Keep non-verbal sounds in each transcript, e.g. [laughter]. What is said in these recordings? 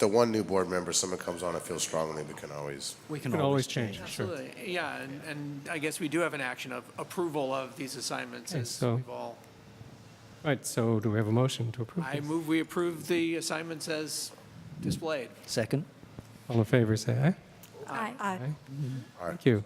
the one new board member, someone comes on and feels strongly, we can always, We You can can always change, it, sure. Absolutely, yeah, and, and I guess we do have an action of approval of these assignments Okay, as so- we've all. Right, so do we have a motion to approve I this? move we approve the assignments as displayed. Second? All in favor, say aye. Aye. Thank you.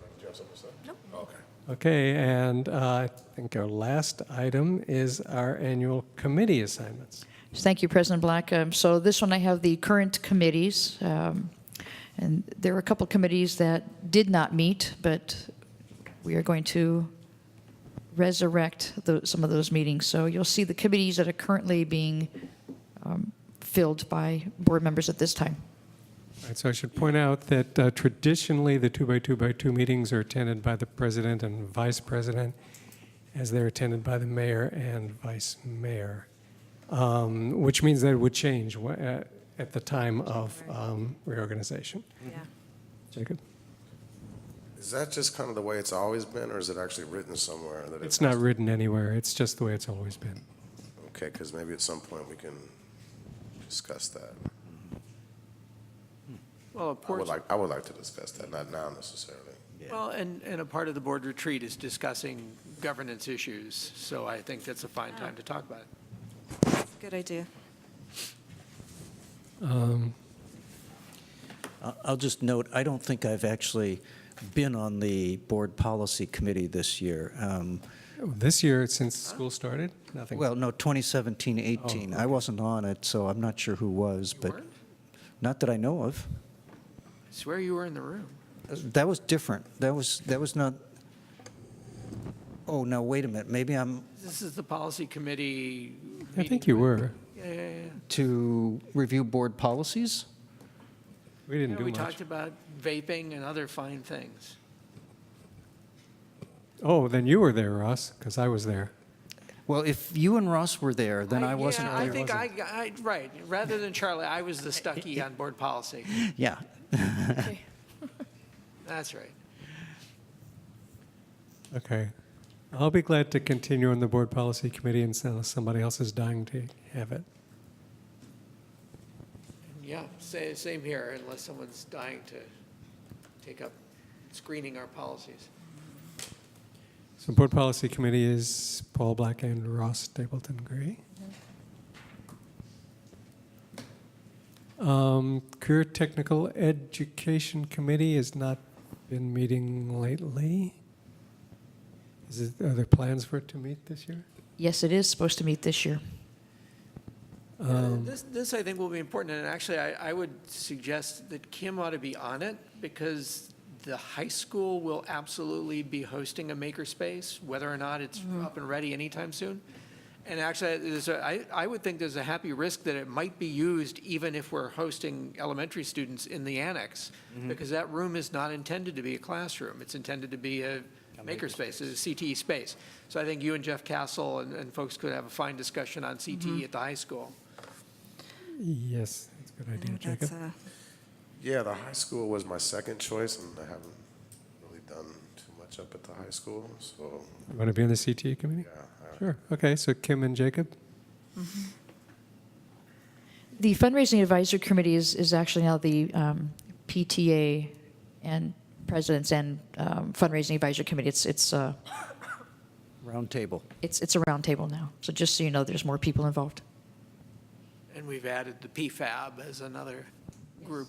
okay. Okay, and uh, I think our last item is our annual committee assignments. Thank you, President Black. Um, So this one, I have the current committees, um, and there were a couple committees that did not meet, but we are going to resurrect tho- some of those meetings. So you'll see the committees that are currently being um, filled by board members at this time. All right, so I should point out that uh, traditionally, the two-by-two-by-two meetings are attended by the president and vice president, as they're attended by the mayor and vice mayor, Um, which means that it would change wh- uh, at the time of um, reorganization. Yeah. Jacob? Is that just kind of the way it's always been, or is it actually written somewhere that It's it's? not written anywhere, it's just the way it's always been. Okay, because maybe at some point we can discuss that. Well, a I would portion. like, I would like to discuss that, not now necessarily. Well, and, and a part of the board retreat is discussing governance issues, so I think that's a fine time to talk about it. Good idea. I- I'll just note, I don't think I've actually been on the Board Policy Committee this year. Um, Oh, This year, since school started, nothing. Well, no, Oh, 2017, 18. I wasn't on it, so I'm not sure who was, but weren't? not that I know of. I swear you were in the room. That was different. That was, that was not, oh, no, wait a minute, maybe I'm This is the policy committee I think you were. Yeah, yeah, yeah. to review board policies? We didn't Yeah, do We much. talked about vaping and other fine things. Oh, then you were there, Ross, because I was there. Well, if you and Ross were there, then I yeah, wasn't I there. think I, I, right, rather than Charlie, I [laughs] was the stucky on board policy. Yeah, That's right. Okay. I'll be glad to continue on the Board Policy Committee unless somebody else is dying to have it. Yeah, sa- same here, unless someone's dying to take up screening our policies. So Board Policy Committee is Paul Black and Ross Stapleton Gray. Um, Career Technical Education Committee has not been meeting lately. Is it, are there plans for it to meet this year? Yes, it is supposed to meet this year. Yeah, This, this I think will be important, and actually, I, I would suggest that Kim ought to be on it, because the high school will absolutely be hosting a makerspace, whether or not it's up and ready anytime soon. And actually, there's a, I, I would think there's a happy risk that it might be used even if we're hosting elementary students in the annex, because that room is not intended to be a classroom, it's intended to be a makerspace, a CTE space. So I think you and Jeff Castle and, and folks could have a fine discussion on CTE at the high school. Yes, that's a good I idea, think Jacob. Mm, that's uh, a, Yeah, the high school was my second choice, and I haven't really done too much up at the high school, so, You Want to be on the CTE Committee? yeah. I- Sure, okay, so Kim and Jacob? The fundraising advisory committee is, is actually now the um, PTA and presidents and um, fundraising advisory committee. It's, it's, uh, roundtable. it's, it's a roundtable now. So just so you know, there's more people involved. And we've added the PFAB as another group.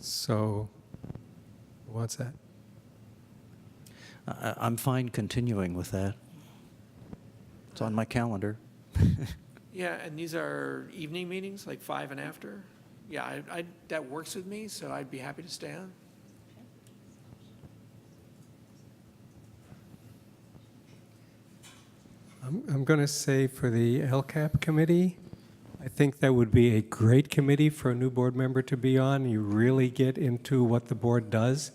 So, who wants that? I- I'm fine continuing with that. It's on my calendar. Yeah, and these are evening meetings, like five and after? Yeah, I, I, that works with me, so I'd be happy to stay on. I'm, I'm going to say for the LCAP committee, I think that would be a great committee for a new board member to be on. You really get into what the board does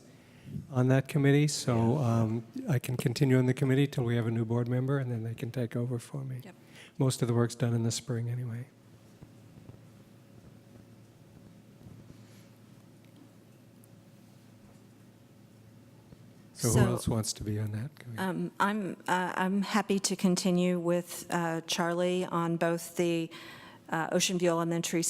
on that committee, so um, I can continue on the committee till we have a new board member, and then they can take over for me. Yep. Most of the work's done in the spring anyway. So who So, else wants to be on that committee? um, I'm, uh, I'm happy to continue with uh, Charlie on both the uh, Ocean View Elementary